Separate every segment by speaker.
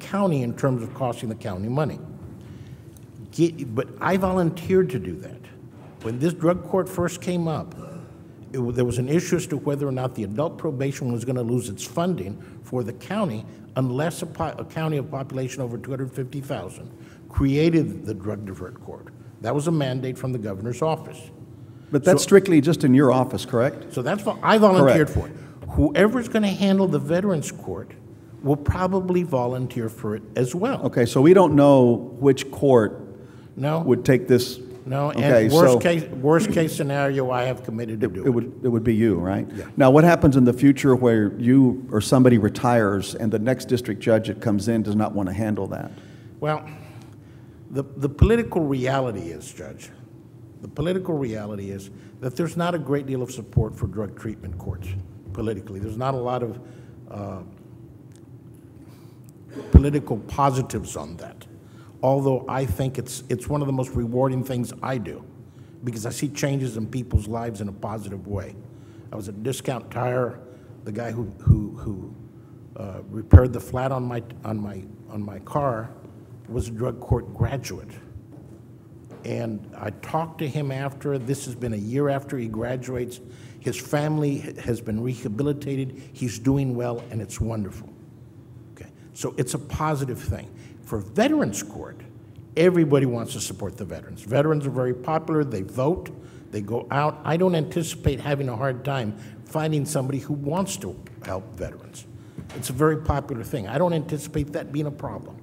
Speaker 1: county in terms of costing the county money. Get- But I volunteered to do that. When this drug court first came up, it wa- there was an issue as to whether or not the adult probation was going to lose its funding for the county unless a, po- a county of population over 250,000 created the drug divert court. That was a mandate from the governor's office.
Speaker 2: But that's strictly just in your office, correct?
Speaker 1: So that's what I volunteered
Speaker 2: Correct.
Speaker 1: for. it. Whoever's going to handle the Veterans Court will probably volunteer for it as well.
Speaker 2: Okay, so we don't know which court
Speaker 1: No,
Speaker 2: would take this.
Speaker 1: no,
Speaker 2: Okay,
Speaker 1: and
Speaker 2: so-
Speaker 1: worst case, worst case scenario, I have committed to
Speaker 2: It
Speaker 1: do it.
Speaker 2: would, it would be you, right? Now, what happens in the future where you or somebody retires and the next district judge that comes in does not want to handle that?
Speaker 1: Well, the, the political reality is, Judge, the political reality is that there's not a great deal of support for drug treatment courts politically. There's not a lot of uh, political positives on that. Although I think it's, it's one of the most rewarding things I do because I see changes in people's lives in a positive way. I was at Discount Tire, the guy who, who, who uh, repaired the flat on my, on, my, on my car was a drug court graduate. And I talked to him after, this has been a year after he graduates. His family has been rehabilitated, he's doing well, and it's wonderful. Okay, so it's a positive thing. For Veterans Court, everybody wants to support the veterans. Veterans are very popular, they vote, they go out. I don't anticipate having a hard time finding somebody who wants to help veterans. It's a very popular thing. I don't anticipate that being a problem.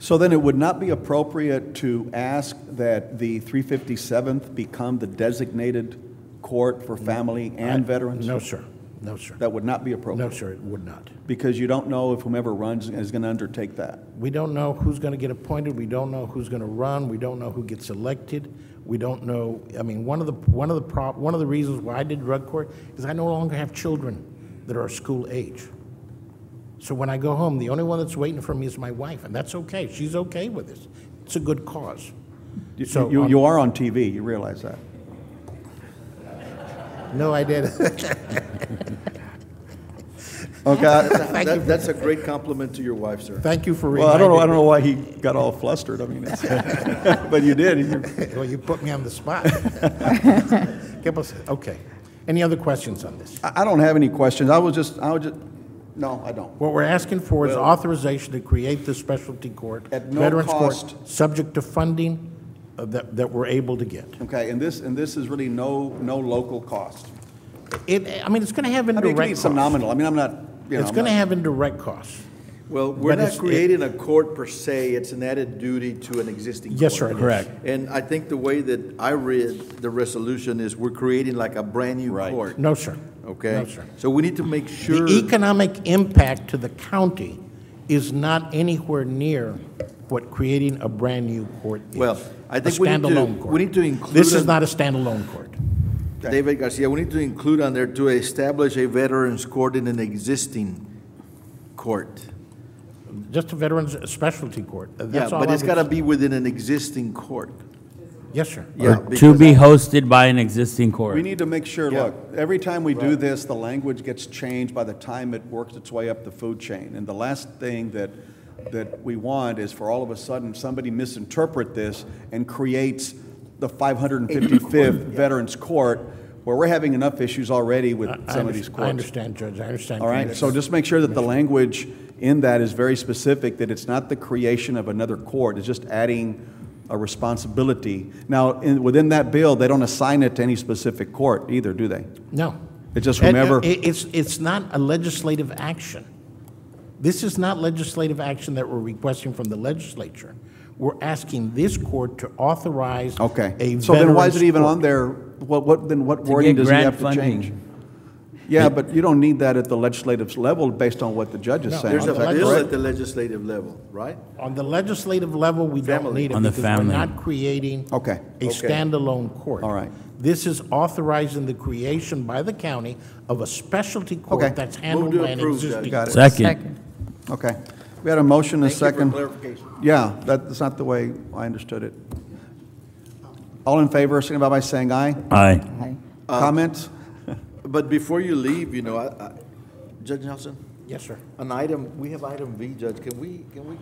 Speaker 2: So then it would not be appropriate to ask that the 357th become the designated court for family and veterans?
Speaker 1: No, sir. No, sir.
Speaker 2: That would not be appropriate?
Speaker 1: No, sir, it would not.
Speaker 2: Because you don't know if whomever runs is going to undertake that.
Speaker 1: We don't know who's going to get appointed, we don't know who's going to run, we don't know who gets elected, we don't know, I mean, one of the, one of the prob, one of the reasons why I did drug court is I no longer have children that are school age. So when I go home, the only one that's waiting for me is my wife, and that's okay, she's okay with this. It's a good cause.
Speaker 2: You-
Speaker 1: So
Speaker 2: You,
Speaker 1: on-
Speaker 2: you are on TV, you realize that.
Speaker 1: No, I didn't.
Speaker 2: Okay.
Speaker 1: Thank you,
Speaker 3: That, that's a great compliment to your wife, sir.
Speaker 1: thank you for
Speaker 2: Well, I
Speaker 1: reminding
Speaker 2: don't know, I
Speaker 1: me.
Speaker 2: don't know why he got all flustered, I mean, it's- but you did. You-
Speaker 1: Well, you put me on the spot. Give us- Okay. Any other questions on this?
Speaker 2: I I don't have any questions, I was just, I was just, no, I don't.
Speaker 1: What we're asking for is authorization to create this specialty court.
Speaker 2: At no
Speaker 1: Veterans Court,
Speaker 2: cost.
Speaker 1: Subject to funding uh, that, that we're able to get.
Speaker 2: Okay, and this, and this is really no, no local cost.
Speaker 1: It, I mean, it's going to have
Speaker 2: I mean, it
Speaker 1: indirect
Speaker 2: could be
Speaker 1: costs.
Speaker 2: some nominal, I mean, I'm not, you know.
Speaker 1: It's
Speaker 2: I'm
Speaker 1: going to
Speaker 2: not-
Speaker 1: have indirect costs.
Speaker 3: Well, we're
Speaker 1: But
Speaker 3: not
Speaker 1: it's- it-
Speaker 3: creating a court per se, it's an added duty to an existing court.
Speaker 1: Yes, sir, it is. Correct.
Speaker 3: And I think the way that I read the resolution is we're creating like a brand-new
Speaker 2: Right. E
Speaker 3: court.
Speaker 1: No, sir.
Speaker 3: Okay?
Speaker 1: No, sir.
Speaker 3: So we need to make
Speaker 1: The
Speaker 3: sure,
Speaker 1: economic impact to the county is not anywhere near what creating a brand-new court is.
Speaker 3: Well, I
Speaker 1: A
Speaker 3: think we need to-
Speaker 1: standalone court.
Speaker 3: we need to include
Speaker 1: This is
Speaker 3: an-
Speaker 1: not a standalone court.
Speaker 3: David Garcia, we need to include on there to establish a veterans court in an existing court.
Speaker 1: Just a veterans specialty court.
Speaker 3: Yeah,
Speaker 1: That's all
Speaker 3: but
Speaker 1: I
Speaker 3: it's
Speaker 1: would-
Speaker 3: gotta be within an existing court.
Speaker 1: Yes, sir.
Speaker 3: Yeah,
Speaker 4: To
Speaker 3: because
Speaker 4: be hosted by an existing
Speaker 2: We
Speaker 4: court.
Speaker 2: need to make sure,
Speaker 3: Yeah.
Speaker 2: look, every time we do this, the language gets changed by the time it works its way up the food chain. And the last thing that, that we want is for all of a sudden, somebody misinterpret this and creates the 555th Veterans Court, where we're having enough issues already with
Speaker 1: I
Speaker 2: some of
Speaker 1: under-
Speaker 2: these
Speaker 1: I
Speaker 2: courts.
Speaker 1: understand, Judge, I understand.
Speaker 2: All right, so just make sure that the language in that is very specific, that it's not the creation of another court, it's just adding a responsibility. Now, in, within that bill, they don't assign it to any specific court either, do they?
Speaker 1: No.
Speaker 2: It's just
Speaker 1: And, uh,
Speaker 2: whomever-
Speaker 1: it- It's, it's not a legislative action. This is not legislative action that we're requesting from the legislature. We're asking this court to authorize
Speaker 2: Okay,
Speaker 1: a
Speaker 2: so then why is
Speaker 1: veterans
Speaker 2: it even
Speaker 1: court.
Speaker 2: on there? What, what, then what wording
Speaker 4: get
Speaker 2: does he
Speaker 4: grant
Speaker 2: have to
Speaker 4: funding.
Speaker 2: change? Yeah, but you don't need that at the legislative level based on what the judge is
Speaker 1: No.
Speaker 2: saying, is
Speaker 3: there's a
Speaker 2: that
Speaker 1: Sounds
Speaker 3: bill
Speaker 2: correct?
Speaker 3: at the legislative level, right?
Speaker 1: On the legislative level, we don't
Speaker 3: Family.
Speaker 1: need it
Speaker 4: On the
Speaker 1: because we're
Speaker 4: family.
Speaker 1: not creating
Speaker 2: Oh, Okay.
Speaker 1: a standalone court.
Speaker 2: All right.
Speaker 1: This is authorizing the creation by the county of a specialty
Speaker 2: Okay.
Speaker 1: court that's handled
Speaker 3: to
Speaker 1: by an
Speaker 3: approve, Judge.
Speaker 1: existing.
Speaker 2: Got it.
Speaker 4: Second.
Speaker 2: Okay. We had a motion, a
Speaker 3: Thank you
Speaker 2: second.
Speaker 3: for clarification.
Speaker 2: Yeah, that's not the way I understood it. All in favor, signify by saying aye.
Speaker 4: Aye.
Speaker 2: Comments?
Speaker 3: But before you leave, you know, I, I, Judge Nelson,
Speaker 1: Yes, sir.
Speaker 3: an item, we have item V, Judge, can we, can we